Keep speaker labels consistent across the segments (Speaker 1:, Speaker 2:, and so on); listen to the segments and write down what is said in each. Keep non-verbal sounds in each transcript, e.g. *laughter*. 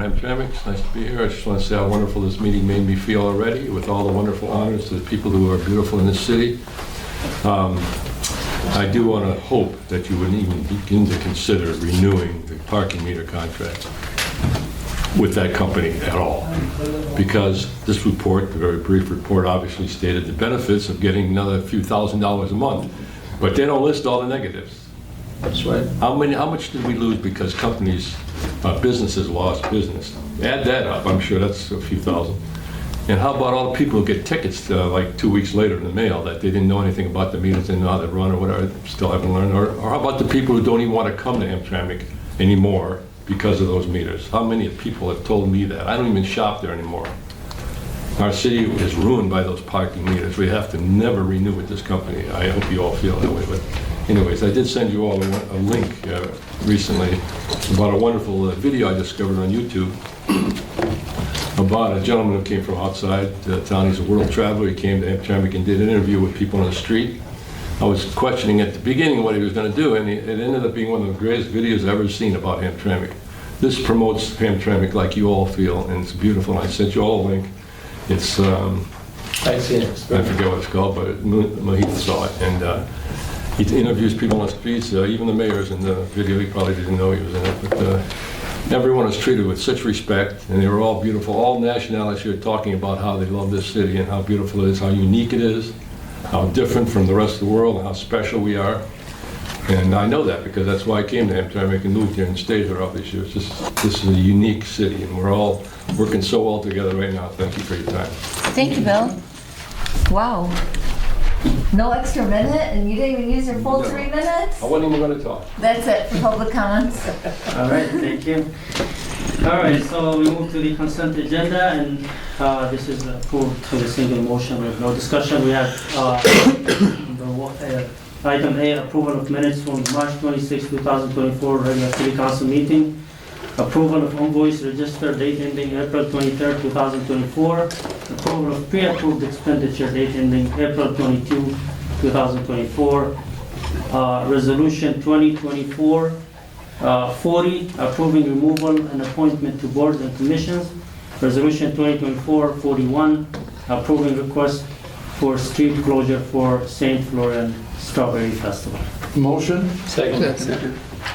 Speaker 1: Dramik, it's nice to be here. I just want to say how wonderful this meeting made me feel already, with all the wonderful honors to the people who are beautiful in this city. Um, I do want to hope that you wouldn't even begin to consider renewing the parking meter contract with that company at all, because this report, the very brief report, obviously stated the benefits of getting another few thousand dollars a month, but they don't list all the negatives.
Speaker 2: That's right.
Speaker 1: How many, how much did we lose because companies, uh, businesses lost business? Add that up, I'm sure that's a few thousand. And how about all the people who get tickets uh, like two weeks later in the mail that they didn't know anything about the meters, didn't know how they run or whatever, still haven't learned? Or or how about the people who don't even want to come to Hamtramck anymore because of those meters? How many people have told me that? I don't even shop there anymore. Our city is ruined by those parking meters. We have to never renew with this company. I hope you all feel that way, but anyways, I did send you all a a link uh, recently about a wonderful uh, video I discovered on YouTube about a gentleman who came from outside the town. He's a world traveler. He came to Hamtramck and did an interview with people on the street. I was questioning at the beginning what he was going to do, and it it ended up being one of the greatest videos I've ever seen about Hamtramck. This promotes Hamtramck like you all feel, and it's beautiful. I sent you all a link. It's, um,
Speaker 2: I see it.
Speaker 1: I forget what it's called, but Mo- Mohit saw it, and uh, he interviews people on the streets, uh, even the mayor's in the video, he probably didn't know he was in it, but uh, everyone was treated with such respect, and they were all beautiful, all nationalities here talking about how they love this city and how beautiful it is, how unique it is, how different from the rest of the world, and how special we are. And I know that because that's why I came to Hamtramck and moved here and stayed here all these years. This, this is a unique city, and we're all working so well together right now. Thank you for your time.
Speaker 3: Thank you, Bill. Wow. No extra minute, and you didn't even use your full
Speaker 1: No.
Speaker 3: three minutes?
Speaker 1: I wasn't even gonna talk.
Speaker 3: That's it for public comments.
Speaker 2: All right, thank you. All right, so we move to the consent agenda, and uh, this is approved to the single motion with no discussion. We have uh, *coughs* the wa- uh, item A, approval of minutes from March 26, 2024, regular city council meeting. Approval of invoice register date ending April 23, 2024. Approval of pre-approved expenditure date ending April 22, 2024. Uh, Resolution 2024 Uh, 40, approving removal and appointment to boards and commissions. Resolution 2024-41, approving request for street closure for St. Florian Strawberry Festival.
Speaker 4: Motion?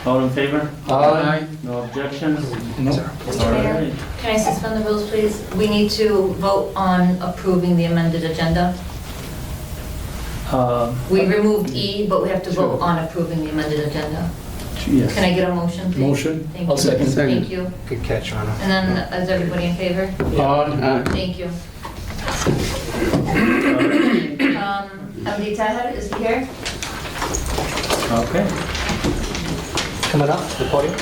Speaker 2: All in favor?
Speaker 4: Aye.
Speaker 2: No objections?
Speaker 4: No.
Speaker 2: All
Speaker 3: Mr. Mayor,
Speaker 2: right.
Speaker 3: can I suspend the rules, please? We need to vote on approving the amended agenda.
Speaker 2: Uh,
Speaker 3: We removed E, but we have to vote on approving the amended agenda. Can
Speaker 2: Yes.
Speaker 3: I get a motion, please?
Speaker 4: Motion?
Speaker 3: Thank
Speaker 5: I'll
Speaker 3: you.
Speaker 5: second.
Speaker 3: Thank you.
Speaker 5: Good catch, Anna.
Speaker 3: And then, is everybody in favor?
Speaker 4: Aye.
Speaker 3: Thank you. Um, Abdi Taher, is he here?
Speaker 2: Okay.
Speaker 5: Coming up to the podium.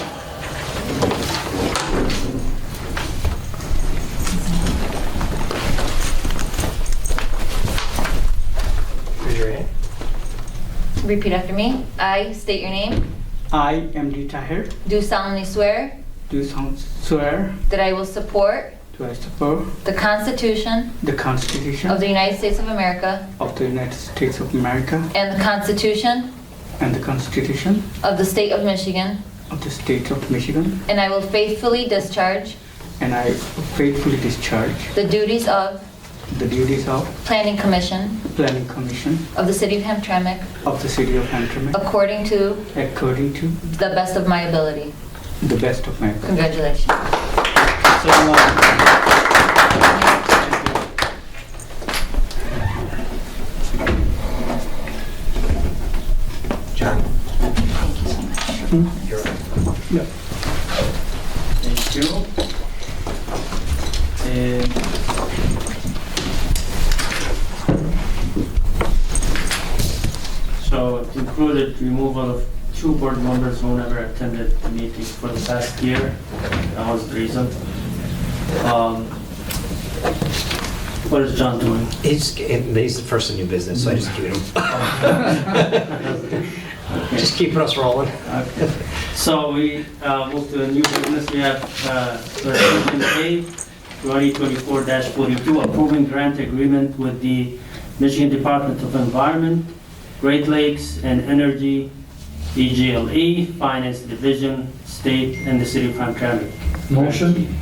Speaker 5: Raise your hand.
Speaker 3: Repeat after me. I state your name.
Speaker 6: I, M.D. Tahir,
Speaker 3: Do solemnly swear
Speaker 6: do swear
Speaker 3: that I will support
Speaker 6: to I support
Speaker 3: the Constitution
Speaker 6: the Constitution
Speaker 3: of the United States of America
Speaker 6: of the United States of America
Speaker 3: and the Constitution
Speaker 6: and the Constitution
Speaker 3: of the State of Michigan,
Speaker 6: of the State of Michigan,
Speaker 3: and I will faithfully discharge
Speaker 6: and I faithfully discharge
Speaker 3: the duties of
Speaker 6: the duties of
Speaker 3: Planning Commission
Speaker 6: Planning Commission
Speaker 3: of the City of Hamtramck
Speaker 6: of the City of Hamtramck
Speaker 3: according to
Speaker 6: according to
Speaker 3: the best of my ability.
Speaker 6: the best of my ability.
Speaker 3: Congratulations.
Speaker 6: So, uh,
Speaker 5: John. You're up.
Speaker 2: Thank you. And So it included removal of two board members who never attended the meetings for the past year. That was the reason. Um, What is John doing?
Speaker 5: He's, he's the first in new business, so I just keep him. *laughs* Just keeping us rolling.
Speaker 2: Okay. So we uh, move to a new business. We have uh, resolution A, 2024-42, approving grant agreement with the Michigan Department of Environment, Great Lakes and Energy, E DGLE, Finance Division, State, and the City of Hamtramck.
Speaker 4: Motion?